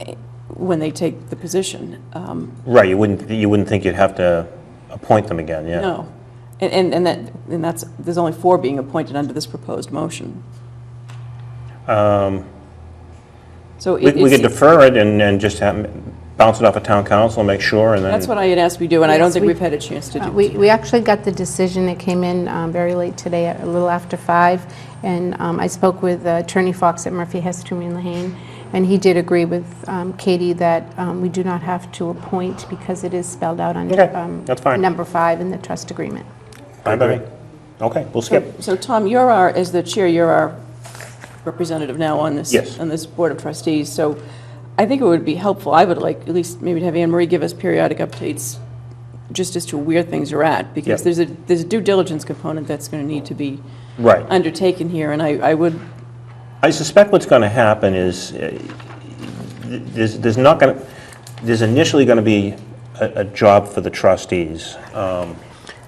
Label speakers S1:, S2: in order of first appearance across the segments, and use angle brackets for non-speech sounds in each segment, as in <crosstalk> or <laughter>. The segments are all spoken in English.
S1: eh, when they take the position. Um,
S2: Right, you wouldn't, you wouldn't think you'd have to appoint them again, yeah.
S1: No. And- And, and that, and that's, there's only four being appointed under this proposed motion. So
S2: Um, We
S1: it-
S2: we could
S1: it's,
S2: defer it and, and just have, bounce it off of town council, make sure, and then.
S1: that's what I had asked we do, and I don't
S3: Yes,
S1: think
S3: we-
S1: we've had a chance to
S3: Uh,
S1: do.
S3: We we actually got the decision, it came in um, very late today, a little after five, and um, I spoke with Attorney Fox at Murphy, Hestum, and Lehane, and he did agree with um, Katie that um, we do not have to appoint because it is spelled out on
S2: Okay,
S3: um,
S2: that's fine.
S3: number five in the trust agreement.
S2: Fine by me. Okay, we'll skip.
S1: So Tom, you're our, as the chair, you're our representative now on this.
S2: Yes.
S1: On this Board of Trustees, so I think it would be helpful, I would like, at least maybe to have Anne Marie give us periodic updates just as to where things are at, because
S2: Yeah.
S1: there's a, there's a due diligence component that's going to need to be
S2: Right.
S1: undertaken here, and I, I would,
S2: I suspect what's going to happen is, uh, there's there's not going to, there's initially going to be a a job for the trustees, um,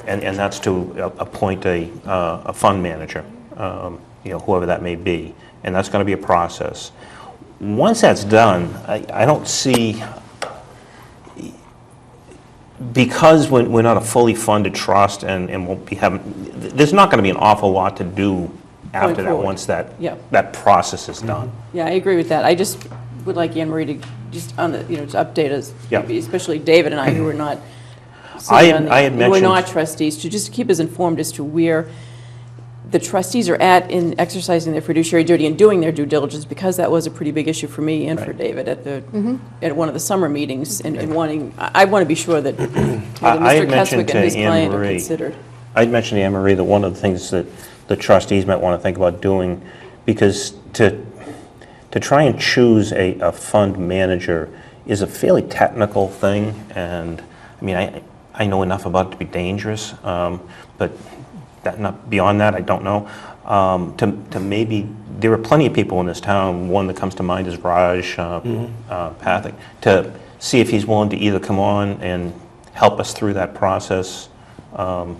S2: and and that's to a- appoint a uh, a fund manager, um, you know, whoever that may be, and that's going to be a process. Once that's done, I I don't see, because we're we're not a fully funded trust and and won't be having, there's not going to be an awful lot to do after that,
S1: forward.
S2: once that,
S1: Yeah.
S2: that process is done.
S1: yeah, I agree with that. I just would like Anne Marie to, just on the, you know, to update us,
S2: Yeah.
S1: maybe especially David and I, who are not
S2: I
S1: sitting
S2: had-
S1: on the-
S2: I had
S1: Who are
S2: mentioned-
S1: not trustees, to just keep us informed as to where the trustees are at in exercising their fiduciary duty and doing their due diligence, because that was a pretty big issue for me and for
S2: Right.
S1: David at the, at one of the summer meetings, and and wanting, I I want to be sure
S2: <clears throat>
S1: that whether
S2: I had
S1: Mr.
S2: mentioned
S1: Keswick and
S2: to
S1: his
S2: Anne
S1: client are
S2: Marie-
S1: considered.
S2: I'd mentioned to Anne Marie that one of the things that the trustees might want to think about doing, because to, to try and choose a, a fund manager is a fairly technical thing, and, I mean, I, I know enough about it to be dangerous, um, but that, not, beyond that, I don't know. Um, to, to maybe, there are plenty of people in this town, one that comes to mind is Raj uh, uh, Pathak, to see if he's willing to either come on and help us through that process, um,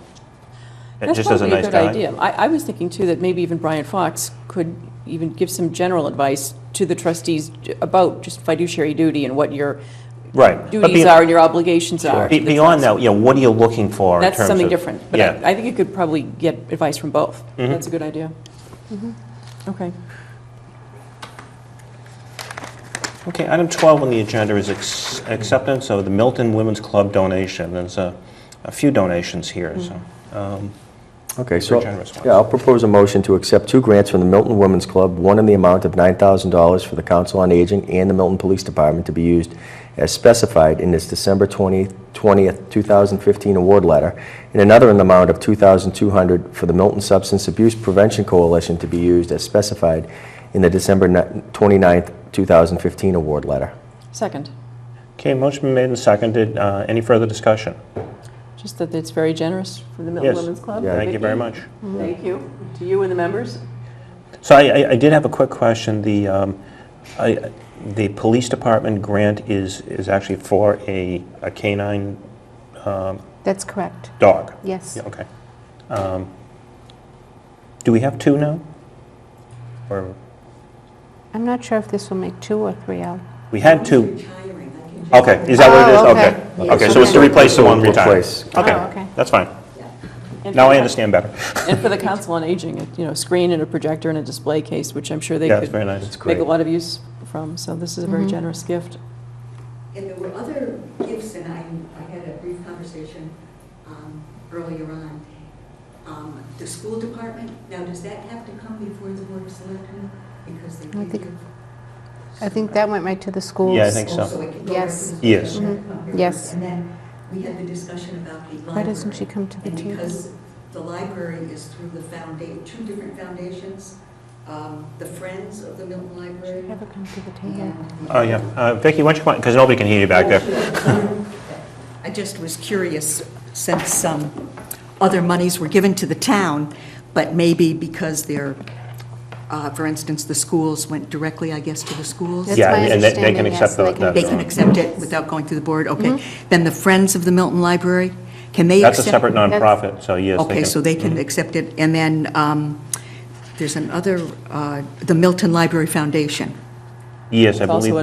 S1: That's
S2: just as a
S1: probably
S2: nice
S1: good
S2: guy.
S1: idea. I, I was thinking too that maybe even Brian Fox could even give some general advice to the trustees j- about just fiduciary duty and what your
S2: Right. But
S1: duties
S2: be-
S1: are and your obligations are.
S2: Be-
S1: to the
S2: Beyond
S1: trust.
S2: that, you know, what are you looking for in terms of?
S1: That's something different, but
S2: Yeah. Mm-hmm.
S1: I, I think you could probably get advice from both. That's a good idea. Mm-hmm. Okay.
S2: Okay, item 12 on the agenda is ex- acceptance of the Milton Women's Club donation. There's a a few donations here, so.
S1: Mm-hmm.
S4: Okay, so,
S2: generous ones.
S4: yeah, I'll propose a motion to accept two grants from the Milton Women's Club, one in the amount of $9,000 for the Council on Aging and the Milton Police Department to be used as specified in this December 20 20th, 2015 award letter, and another in the amount of $2,200 for the Milton Substance Abuse Prevention Coalition to be used as specified in the December ni- 29th, 2015 award letter.
S1: Second,
S2: Okay, motion been made and seconded. Uh, Any further discussion?
S1: just that it's very generous from the Milton
S2: Yes.
S1: Women's Club.
S4: Yeah.
S2: Thank you very
S1: Vicky.
S2: much.
S1: Thank you. To you and the members.
S2: So I I- I did have a quick question. The, um, I- the police department grant is, is actually for a a canine um,
S3: That's correct,
S2: dog?
S3: yes.
S2: Yeah, okay. Um, Do we have two now? Or,
S3: I'm not sure if this will make two or three out.
S2: we had two,
S5: retiring. I can just-
S2: okay, is that
S3: Oh,
S2: what
S3: okay.
S2: it is? Okay, so it's to
S3: Okay.
S2: replace the one retired?
S4: Replace.
S3: Oh, okay.
S2: Okay, that's fine.
S1: And
S2: Now
S1: for
S2: I
S1: the-
S2: understand better.
S1: And for the Council on Aging, it- you know, screen and a projector and a display case, which I'm sure they
S2: Yeah,
S1: could
S2: it's very nice.
S1: make a
S4: Great.
S1: lot of use from, so this is a very generous gift.
S5: And there were other gifts, and I, I had a brief conversation um, earlier on. Um, The school department, now does that have to come before the board of selectmen? Because they
S3: I
S5: give
S3: think-
S5: you.
S3: I think that went right to the schools.
S2: Yeah, I think so.
S5: Also, it can go
S3: Yes. Mm-hmm.
S5: right to
S2: Yes.
S5: the board.
S3: Yes.
S5: And then we had the discussion about the library.
S3: Why doesn't she come to the
S5: And
S3: table?
S5: because the library is through the founda, two different foundations, um, the Friends of the Milton Library.
S3: Have her come to the table.
S5: and-
S2: Oh, yeah. Uh, Vicky, why don't you come on, because nobody can hear you back there.
S5: I just was curious, since some other monies were given to the town, but maybe because they're, uh, for instance, the schools went directly, I guess, to the schools?
S3: That's
S2: Yeah,
S3: my
S2: and they- they can
S3: understanding, yes,
S2: accept
S3: they
S2: the-
S3: can-
S2: the-
S5: They can accept it without going through the board? Okay. Then the Friends of the Milton Library, can they
S2: Mm-hmm. That's
S5: accept?
S2: a separate
S3: That's-
S2: nonprofit, so yes. they
S5: Okay,
S2: can- Mm-hmm.
S5: so they can accept it. And then um, there's another, uh, the Milton Library Foundation.
S2: Yes, I
S1: It's also
S2: believe.
S1: a